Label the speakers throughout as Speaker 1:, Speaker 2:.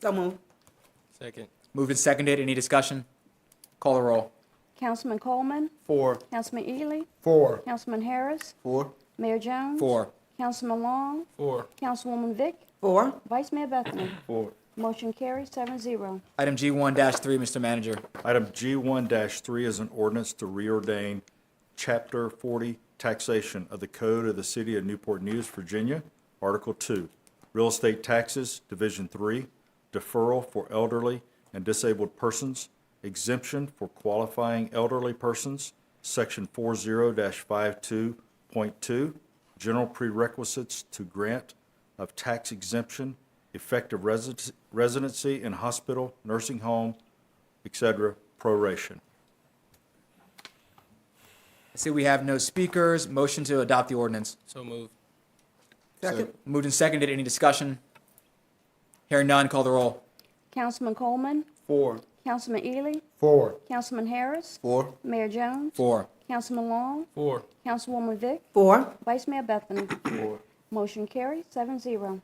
Speaker 1: So moved.
Speaker 2: Second.
Speaker 3: Moved and seconded. Any discussion? Call the roll.
Speaker 4: Councilman Coleman,
Speaker 3: Four.
Speaker 4: Councilman Ely,
Speaker 3: Four.
Speaker 4: Councilman Harris,
Speaker 3: Four.
Speaker 4: Mayor Jones.
Speaker 3: Four.
Speaker 4: Councilman Long,
Speaker 2: Four.
Speaker 4: Councilwoman Vick,
Speaker 1: Four.
Speaker 4: Vice Mayor Bethany.
Speaker 5: Four.
Speaker 4: Motion carries seven zero.
Speaker 3: Item G1-3, Mr. Manager.
Speaker 5: Item G1-3 is an ordinance to reordain Chapter 40 Taxation of the Code of the City of Newport News, Virginia, Article 2, Real Estate Taxes, Division 3, Deferral for Elderly and Disabled Persons, Exemption for Qualifying Elderly Persons, Section 40-52.2, General Prerequisites to Grant of Tax Exemption, Effective Residency- Residency in Hospital, Nursing Home, et cetera, proration.
Speaker 3: I see we have no speakers. Motion to adopt the ordinance.
Speaker 2: So moved.
Speaker 1: Second.
Speaker 3: Moved and seconded. Any discussion? Hearing none, call the roll.
Speaker 4: Councilman Coleman,
Speaker 1: Four.
Speaker 4: Councilman Ely,
Speaker 1: Four.
Speaker 4: Councilman Harris,
Speaker 1: Four.
Speaker 4: Mayor Jones,
Speaker 3: Four.
Speaker 4: Councilman Long,
Speaker 2: Four.
Speaker 4: Councilwoman Vick,
Speaker 1: Four.
Speaker 4: Vice Mayor Bethany. Motion carries seven zero.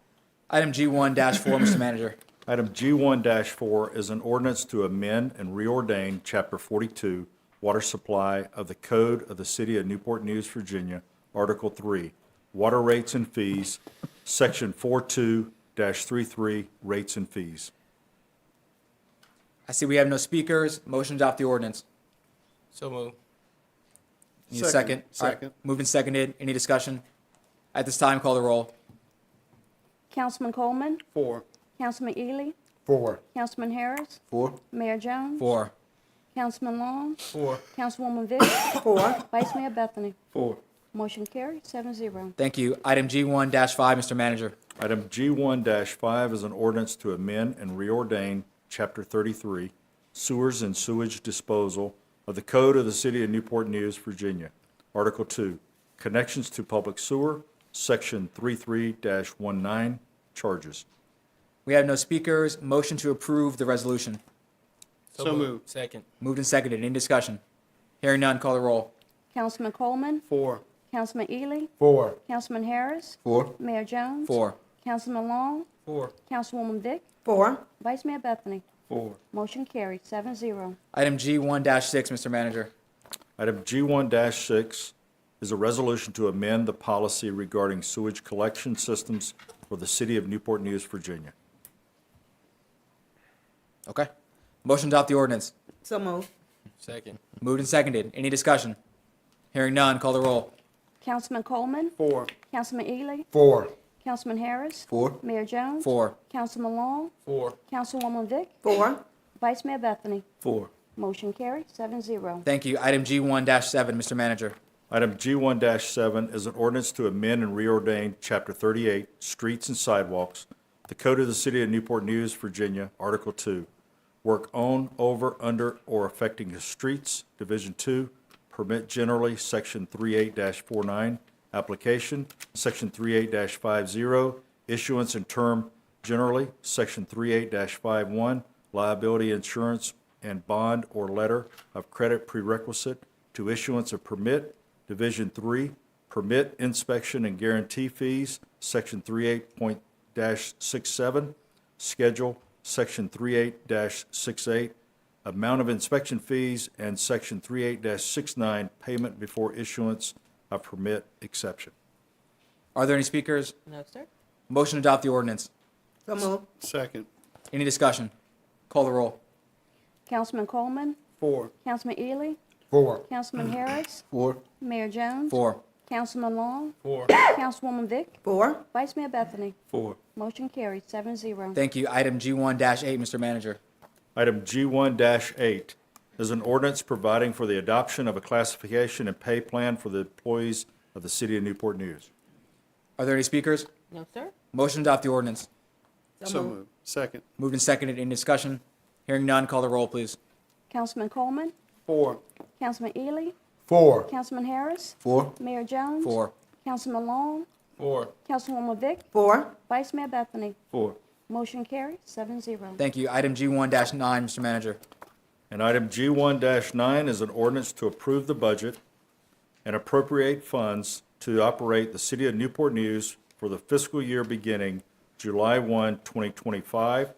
Speaker 3: Item G1-4, Mr. Manager.
Speaker 5: Item G1-4 is an ordinance to amend and reordain Chapter 42, Water Supply of the Code of the City of Newport News, Virginia, Article 3, Water Rates and Fees, Section 42-33, Rates and Fees.
Speaker 3: I see we have no speakers. Motion to adopt the ordinance.
Speaker 2: So moved.
Speaker 3: Need a second? All right.
Speaker 6: Second.
Speaker 3: Moved and seconded. Any discussion? At this time, call the roll.
Speaker 4: Councilman Coleman,
Speaker 6: Four.
Speaker 4: Councilman Ely,
Speaker 6: Four.
Speaker 4: Councilman Harris,
Speaker 6: Four.
Speaker 4: Mayor Jones,
Speaker 3: Four.
Speaker 4: Councilman Long,
Speaker 2: Four.
Speaker 4: Councilwoman Vick,
Speaker 1: Four.
Speaker 4: Vice Mayor Bethany.
Speaker 6: Four.
Speaker 4: Motion carries seven zero.
Speaker 3: Thank you. Item G1-5, Mr. Manager.
Speaker 5: Item G1-5 is an ordinance to amend and reordain Chapter 33, Sewers and Sewage Disposal of the Code of the City of Newport News, Virginia, Article 2, Connections to Public Sewer, Section 33-19, Charges.
Speaker 3: We have no speakers. Motion to approve the resolution.
Speaker 6: So
Speaker 2: moved.
Speaker 6: moved.
Speaker 2: Second.
Speaker 3: Moved and seconded. Any discussion? Hearing none, call the roll.
Speaker 4: Councilman Coleman,
Speaker 6: Four.
Speaker 4: Councilman Ely,
Speaker 6: Four.
Speaker 4: Councilman Harris,
Speaker 6: Four.
Speaker 4: Mayor Jones.
Speaker 3: Four.
Speaker 4: Councilman Long,
Speaker 2: Four.
Speaker 4: Councilwoman Vick,
Speaker 1: Four.
Speaker 4: Vice Mayor Bethany.
Speaker 6: Four.
Speaker 4: Motion carries seven zero.
Speaker 3: Item G1-6, Mr. Manager.
Speaker 5: Item G1-6 is a resolution to amend the policy regarding sewage collection systems for the City of Newport News, Virginia.
Speaker 3: Okay. Motion to adopt the ordinance.
Speaker 1: So moved.
Speaker 2: Second.
Speaker 3: Moved and seconded. Any discussion? Hearing none, call the roll.
Speaker 4: Councilman Coleman,
Speaker 6: Four.
Speaker 4: Councilman Ely,
Speaker 6: Four.
Speaker 4: Councilman Harris,
Speaker 6: Four.
Speaker 4: Mayor Jones.
Speaker 3: Four.
Speaker 4: Councilman Long,
Speaker 2: Four.
Speaker 4: Councilwoman Vick,
Speaker 1: Four.
Speaker 4: Vice Mayor Bethany.
Speaker 6: Four.
Speaker 4: Motion carries seven zero.
Speaker 3: Thank you. Item G1-7, Mr. Manager.
Speaker 5: Item G1-7 is an ordinance to amend and reordain Chapter 38, Streets and Sidewalks, the Code of the City of Newport News, Virginia, Article 2, Work on, over, under, or affecting the streets, Division 2, Permit generally, Section 38-49, Application, Section 38-50, Issuance and term generally, Section 38-51, Liability insurance and bond or letter of credit prerequisite to issuance of permit, Division 3, permit inspection and guarantee fees, Section 38.67, schedule, Section 38-68, amount of inspection fees, and Section 38-69, payment before issuance of permit exception.
Speaker 3: Are there any speakers?
Speaker 1: No, sir.
Speaker 3: Motion to adopt the ordinance.
Speaker 1: So moved.
Speaker 6: Second.
Speaker 3: Any discussion? Call the roll.
Speaker 4: Councilman Coleman,
Speaker 6: Four.
Speaker 4: Councilman Ely,
Speaker 6: Four.
Speaker 4: Councilman Harris,
Speaker 6: Four.
Speaker 4: Mayor Jones.
Speaker 3: Four.
Speaker 4: Councilman Long,
Speaker 2: Four.
Speaker 4: Councilwoman Vick,
Speaker 1: Four.
Speaker 4: Vice Mayor Bethany.
Speaker 6: Four.
Speaker 4: Motion carries seven zero.
Speaker 3: Thank you. Item G1-8, Mr. Manager.
Speaker 5: Item G1-8 is an ordinance providing for the adoption of a classification and pay plan for the employees of the City of Newport News.
Speaker 3: Are there any speakers?
Speaker 1: No, sir.
Speaker 3: Motion to adopt the ordinance.
Speaker 6: So moved. Second.
Speaker 3: Moved and seconded. Any discussion? Hearing none, call the roll, please.
Speaker 4: Councilman Coleman,
Speaker 6: Four.
Speaker 4: Councilman Ely,
Speaker 6: Four.
Speaker 4: Councilman Harris,
Speaker 6: Four.
Speaker 4: Mayor Jones.
Speaker 3: Four.
Speaker 4: Councilman Long,
Speaker 2: Four.
Speaker 4: Councilwoman Vick,
Speaker 1: Four.
Speaker 4: Vice Mayor Bethany.
Speaker 6: Four.
Speaker 4: Motion carries seven zero.
Speaker 3: Thank you. Item G1-9, Mr. Manager.
Speaker 5: And item G1-9 is an ordinance to approve the budget and appropriate funds to operate the City of Newport News for the fiscal year beginning July 1, 2025,